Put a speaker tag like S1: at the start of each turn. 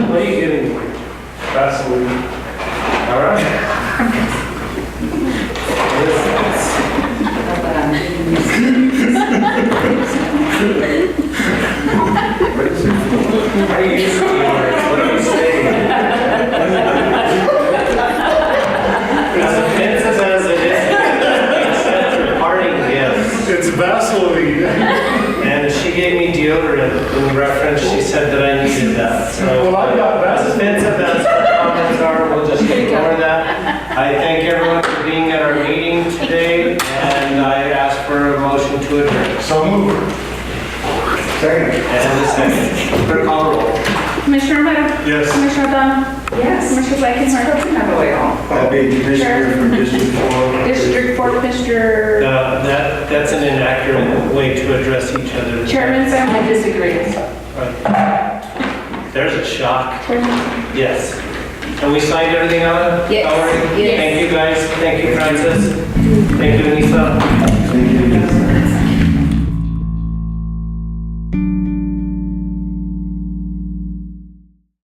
S1: Absolutely. All right. Yes. How do you use the words? What are you saying? As offensive as it is, parting gifts.
S2: It's Vaseline.
S1: And she gave me deodorant in reference, she said that I needed that, so. uh,
S2: Well, I got that.
S1: As offensive as the comments are, we'll just ignore that. I thank everyone for being at our meeting today, and I ask for a motion to adjourn.
S2: So move. Second.
S1: And a second, clerk call roll.
S3: Commissioner Romero?
S2: Yes.
S3: Commissioner O'Donnell? Yes. Commissioner Blakenhart?
S4: I'll be commissioner from District Four.
S3: District Four, Commissioner
S1: Uh, That, that's an inaccurate way to address each other.
S3: Chairman Sam? I disagree.
S1: Right. There's a shock,
S3: Chairman?
S1: yes. And we signed everything on?
S3: Yes.
S1: Valerie?
S3: Yes.
S1: Thank you, guys, thank you, Francis, thank you, Lisa.
S4: Thank you.